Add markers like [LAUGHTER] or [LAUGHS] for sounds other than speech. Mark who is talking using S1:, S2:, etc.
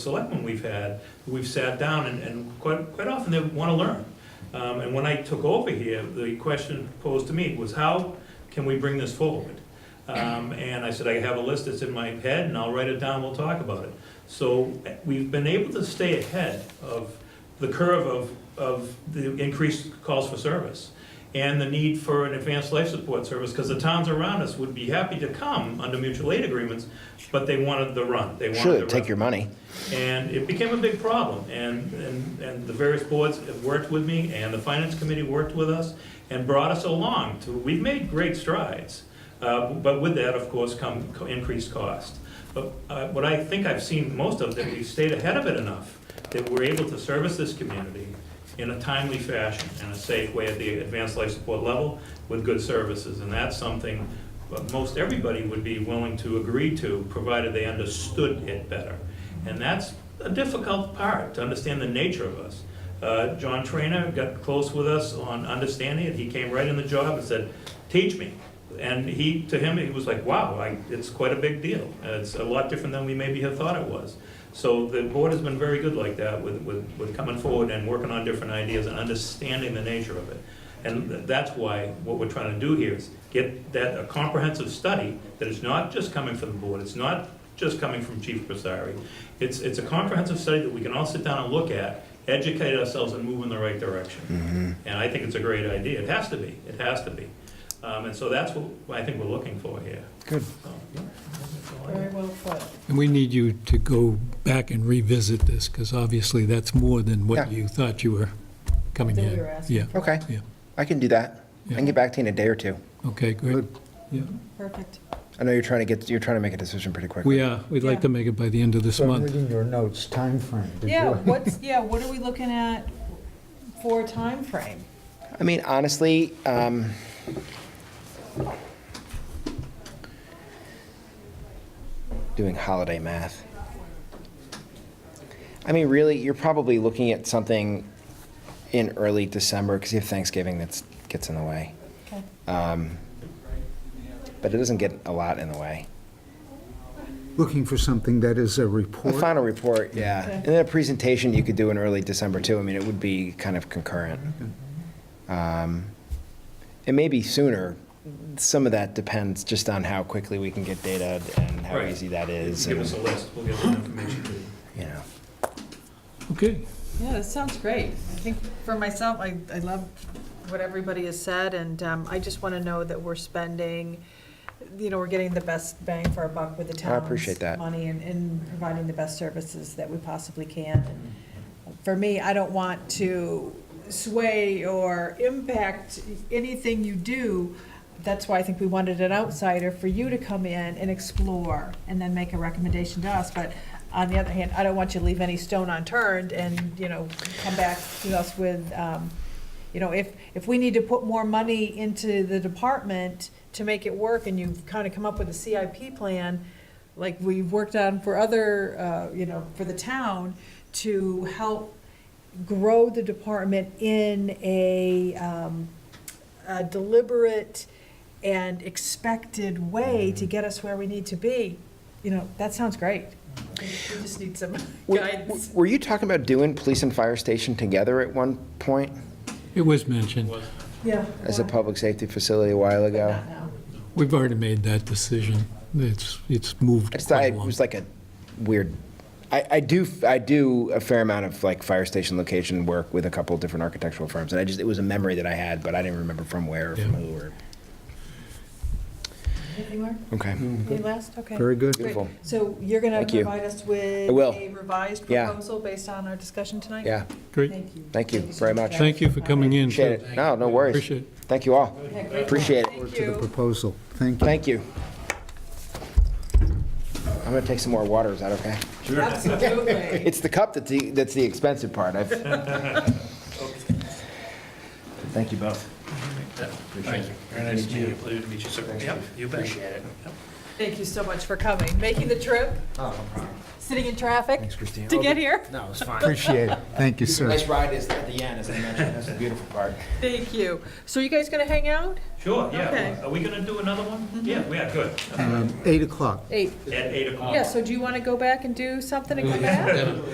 S1: selectmen we've had, we've sat down, and, and quite, quite often they wanna learn. Um, and when I took over here, the question posed to me was, how can we bring this forward? Um, and I said, I have a list that's in my head, and I'll write it down, we'll talk about it. So, eh, we've been able to stay ahead of the curve of, of the increased calls for service, and the need for an advanced life support service, because the towns around us would be happy to come under mutual aid agreements, but they wanted the run, they wanted the
S2: Should,
S1: run.
S2: take your money.
S1: And it became a big problem, and, and, and the various boards have worked with me, and the finance committee worked with us, and brought us along to, we've made great strides. Uh, but with that, of course, come co- increased cost. But, uh, what I think I've seen most of, that we've stayed ahead of it enough, that we're able to service this community in a timely fashion, in a safe way at the advanced life support level, with good services, and that's something uh, most everybody would be willing to agree to, provided they understood it better. And that's a difficult part, to understand the nature of us. Uh, John Trainer got close with us on understanding it, he came right in the job and said, teach me. And he, to him, he was like, wow, I, it's quite a big deal, Uh, it's a lot different than we maybe had thought it was. So the board has been very good like that with, with, with coming forward and working on different ideas and understanding the nature of it. And th- that's why what we're trying to do here is get that, a comprehensive study that is not just coming from the board, it's not just coming from Chief Presari. It's, it's a comprehensive study that we can all sit down and look at, educate ourselves and move in the right direction.
S2: Mm-hmm.
S1: And I think it's a great idea. It has to be, it has to be. Um, and so that's what I think we're looking for here.
S3: Good.
S1: So, yeah, that's all I
S4: Very
S1: got.
S4: well put.
S3: And we need you to go back and revisit this, because obviously that's more than
S2: Yeah.
S3: what you thought you were coming
S4: That we
S3: in.
S4: were asking.
S3: Yeah,
S2: Okay,
S3: yeah.
S2: I can do that. I can get back to you in a day or two.
S3: Okay, great. Yeah,
S4: Perfect.
S2: I know you're trying to get, you're trying to make a decision pretty quickly.
S3: we are, we'd like to make it by the end of this
S5: So I'm
S3: month.
S5: reading your notes, timeframe. Did
S4: Yeah,
S5: you-
S4: what's, yeah, what are we looking at for a timeframe?
S2: I mean, honestly, um, doing holiday math. I mean, really, you're probably looking at something in early December because you have Thanksgiving that gets in the way.
S4: Okay.
S2: Um, but it doesn't get a lot in the way.
S5: Looking for something that is a
S2: The
S5: report?
S2: final report, yeah.
S4: Okay.
S2: And then a presentation you could do in early December too. I mean, it would be kind of concurrent. Um, It may be sooner. Some of that depends just on how quickly we can get data and how
S1: Right.
S2: easy that is.
S1: Give
S2: and,
S1: us a list, we'll get the information to you.
S2: You know,
S3: Okay,
S4: Yeah, that sounds great. I think for myself, I, I love what everybody has said, and um, I just want to know that we're spending, you know, we're getting the best bang for our buck with the
S2: I
S4: town's
S2: appreciate that.
S4: money and, and providing the best services that we possibly can. And For me, I don't want to sway or impact anything you do. That's why I think we wanted an outsider for you to come in and explore and then make a recommendation to us. But on the other hand, I don't want you to leave any stone unturned and, you know, come back to us with, um, you know, if, if we need to put more money into the department to make it work and you've kind of come up with a CIP plan, like we've worked on for other, uh, you know, for the town to help grow the department in a, um, a deliberate and expected way
S2: Mm-hmm.
S4: to get us where we need to be, you know, that sounds great. We
S2: Mm-hmm.
S4: just need some
S2: Were-
S4: guidance.
S2: Were you talking about doing police and fire station together at one point
S3: it was mentioned.
S4: Yeah.
S2: as a public safety facility a while ago?
S4: Not now.
S3: We've already made that decision. It's, it's
S2: I
S3: moved
S2: just thought
S3: quite
S2: it
S3: along.
S2: was like a weird, I, I do, I do a fair amount of like fire station location work with a couple of different architectural firms, and I just, it was a memory that I had, but I didn't remember from where or from
S3: Yeah.
S2: who or.
S4: Anything more?
S2: Okay.
S4: Any last? Okay.
S5: Very good.
S4: Great.
S2: Beautiful.
S4: So you're going
S2: Thank
S4: to
S2: you.
S4: provide us with
S2: I will.
S4: a revised
S2: Yeah.
S4: proposal based on our discussion tonight?
S2: Yeah,
S3: Great.
S4: Thank you.
S2: Thank you
S4: so
S2: very much.
S4: guys.
S3: Thank you for coming in.
S2: appreciate
S3: too.
S2: it. No, no worries.
S3: Appreciate it.
S2: Thank you all.
S4: Yeah, great.
S2: Appreciate it.
S4: Thank
S5: To the
S4: you.
S5: proposal. Thank you.
S2: Thank you. I'm gonna take some more water, is that okay?
S4: Absolutely.
S2: It's the cup that's the, that's the expensive part. I've. [LAUGHS] Thank you both.
S1: Very nice to meet you, pleasure to meet you, sir. Yep, you bet.
S2: Appreciate it.
S4: Thank you so much for coming, making the trip,
S2: Oh, no problem.
S4: sitting in traffic
S6: Thanks, Christine.
S4: to get here.
S2: No, it's fine.
S5: Appreciate it. Thank you, sir.
S2: Nice ride is at the end, as I mentioned. That's the beautiful part.
S4: Thank you. So you guys gonna hang out?
S1: Sure,
S4: Okay.
S1: yeah. Are we gonna do another one? Yeah, we are, good.
S5: Um, Eight o'clock.
S4: Eight.
S1: At eight o'clock.
S4: Yeah, so do you wanna go back and do something and come back?